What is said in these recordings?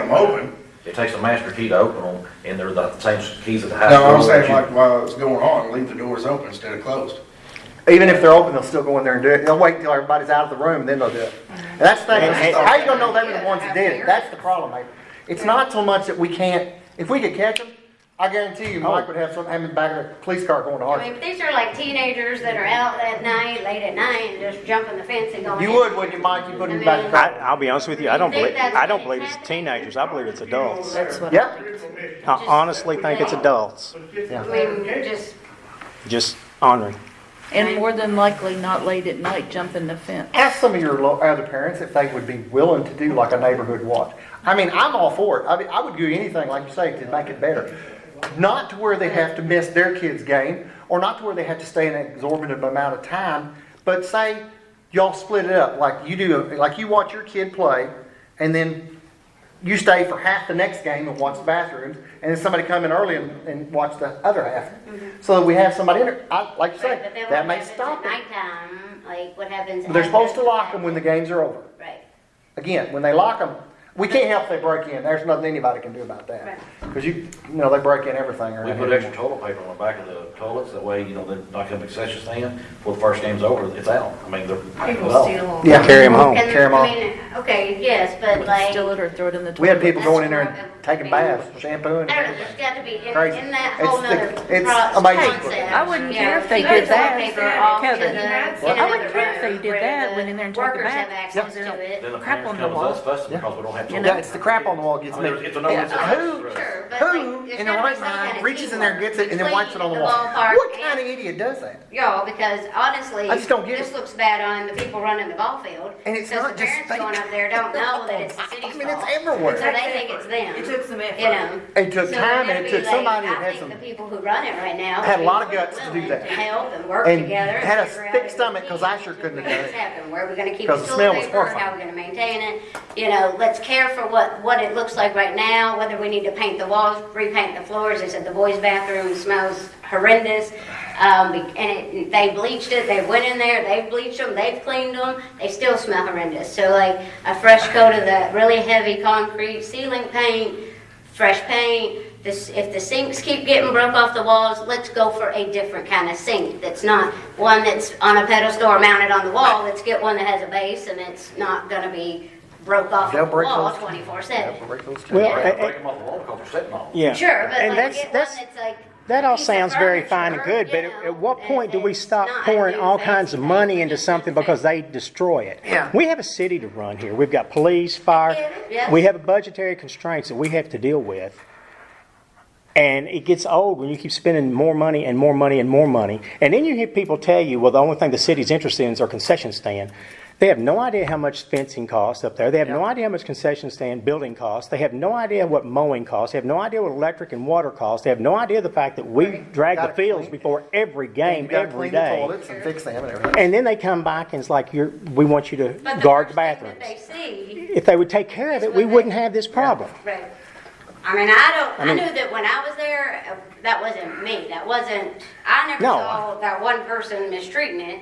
them open. It takes a master key to open them, and they're the same keys at the house. No, I'm saying like while it's going on, leave the doors open instead of closed. Even if they're open, they'll still go in there and do it. They'll wait until everybody's out of the room, then they'll do it. And that's the thing, hey, how you gonna know they were the ones that did it? That's the problem, Mayor. It's not so much that we can't, if we could catch them, I guarantee you Mike would have something, have him in the back of the police car going to I mean, Hartford. if these are like teenagers that are out at night, late at night, and just jumping the fence and going. You in. would, wouldn't you, Mike? You put him in the back of the I, car. I'll be honest with you, I don't You think believe, that's I don't what believe it's happened? teenagers, I believe it's adults. I That's what. Yeah. honestly think it's adults, I mean, just, just honoring. And more than likely not late at night jumping the fence. Ask some of your lo- other parents if they would be willing to do like a neighborhood watch. I mean, I'm all for it. I mean, I would do anything, like you say, to make it better. Not to where they have to miss their kid's game, or not to where they have to stay an exorbitant amount of time, but say y'all split it up, like you do, like you watch your kid play, and then you stay for half the next game and watch the bathrooms, and then somebody come in early and, and watch the other half. So that we have somebody in there, I, like you but say, then that what may happens at stop it. nighttime, like what happens? They're after- supposed to lock them when the games are over. Right. Again, when they lock them, we can't help they break in. There's nothing anybody can do about that. Because you, you know, they break in everything We around put here. extra toilet paper on the back of the toilets, that way, you know, they're not gonna be excessive stand, before the first game's over, it's out, I mean, they're. People well, steal. Yeah. Carry them home. And, Tear 'em I off. mean, Okay, yes, but like. Steal it or throw it in the We had toilet. people going in there and taking baths, shampooing. I don't know, there's got to be, in, Crazy. in that It's whole the- nother it's pro- amazing. concept. I wouldn't Yeah, care if they there's did that, toilet paper off Kevin. in the- Well, in I another wouldn't care if they room did where that, the went in there and took a Workers have bath. access to it. Then the Crap parents on the come to us fussing Yeah. because we don't have You toilet. know. Yeah, it's the crap on the wall gets I me. mean, it's a no- it's a- Who, Sure, but like, who there's in their gotta be right some kind mind of reaches in there and teamwork gets it and then wipes it on the between wall? ballpark What kind of and- idiot does that? Y'all, because honestly, I just don't get this it. looks bad on the people running the ball field. And it's 'cause not the just parents going fake. up there don't know that it's the I city's mean, it's fault. everywhere. So they think it's them. It took some effort. You know. It took So time and that'd it be took like, somebody that I had think some- The people who run it right now. Had a lot of would be guts to do willing that. help and work And together. and had a figure out thick as a stomach, 'cause team I sure couldn't have to done make it. this happen. Where we're gonna keep 'Cause the the school smell was safer, how horrifying. we're gonna maintain it. You know, let's care for what, what it looks like right now, whether we need to paint the walls, repaint the floors. They said the boys' bathroom smells horrendous. Um, be- and it, they bleached it, they went in there, they bleached them, they've cleaned them, they still smell horrendous. So like a fresh coat of that really heavy concrete ceiling paint, fresh paint. This, if the sinks keep getting broke off the walls, let's go for a different kind of sink that's not one that's on a pedestal or mounted on the wall. Let's get one that has a base and it's not gonna be broke off They'll the break wall those. twenty-four Yeah, seven. break those teeth. Well, Break eh, eh, them off the wall because they're sitting on them. yeah. Sure, but And like that's- get one that's- that's like. That all piece of sounds very fine and furniture, good, but you at know, at what that- point do we that's stop not pouring new all fancy kinds of thing. money into something because they destroy it? Yeah. We have a city to run here. We've got police, fire. Yeah. We have budgetary constraints that we have to deal with. And it gets old when you keep spending more money and more money and more money. And then you hear people tell you, well, the only thing the city's interested in is our concession stand. They have no idea how much fencing costs up there. They have no idea how much concession stand building costs. They have no idea what mowing costs. They have no idea what electric and water costs. They have no idea the fact that we drag Gotta the fields clean. before every And game, you gotta every clean the day. toilets and fix them and everything. And then they come back and it's like, you're, we want you But to the guard the first thing that bathrooms. They see If they would take care of That's it, we what they- wouldn't have this problem. Right. I mean, I don't, I mean- knew that when I was there, uh, that wasn't me, that wasn't, I never No. saw that one person mistreating it,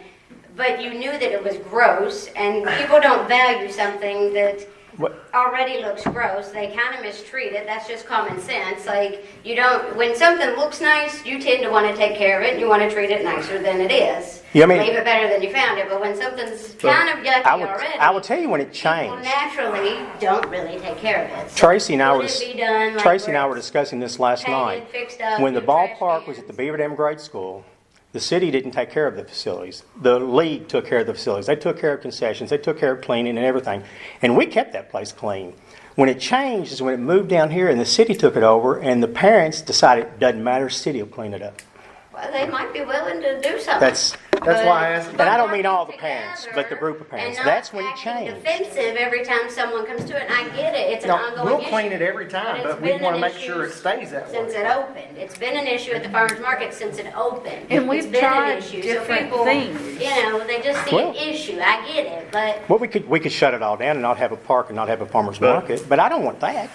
but you knew that it was gross, and people don't value something that What- already looks gross, they kind of mistreat it, that's just common sense, like, you don't, when something looks nice, you tend to want to take care of it, and you want to treat it nicer than it is. Yeah, I mean- Leave it better than you found it, but when something's kind of yucky I would, already. I would tell you when it People changed. naturally don't really take care of it. So Tracy and I would were, it be done like Tracy and I where were it's discussing this last painted, night. fixed up, When the new trash ballpark was at the cans? Beaver Dam Grade School, the city didn't take care of the facilities. The league took care of the facilities. They took care of concessions. They took care of cleaning and everything. And we kept that place clean. When it changed is when it moved down here and the city took it over and the parents decided, doesn't matter, city will clean it up. Well, they might be willing to do something. That's, That's why I asked. But- And I don't but mean all the working parents, together but the group of parents. and not That's when it acting changed. Defensive every time someone comes to it, and I get it, it's an No, ongoing we'll issue, clean it every time, it's but we been wanna an make issue sure it stays that Since way. it opened, it's been an issue at the farmer's market since it opened. And It's we've been an tried issue. So different people, things. You know, they just see an Well- issue, I get it, but, well, we could, we could shut it all down and not have a park and not have a farmer's market, but I don't want that.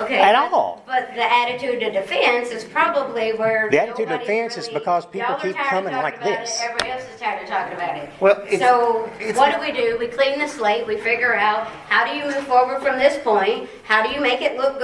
okay. At but- all. But the attitude of defense is probably where. The attitude of nobody's defense is really- because people y'all are keep tired of coming talking like about it this. Every other Chris is tired of talking about it. Well, it's- So it's- what do we do? We clean the slate, we figure out, how do you move forward from this point? How do you make it look good?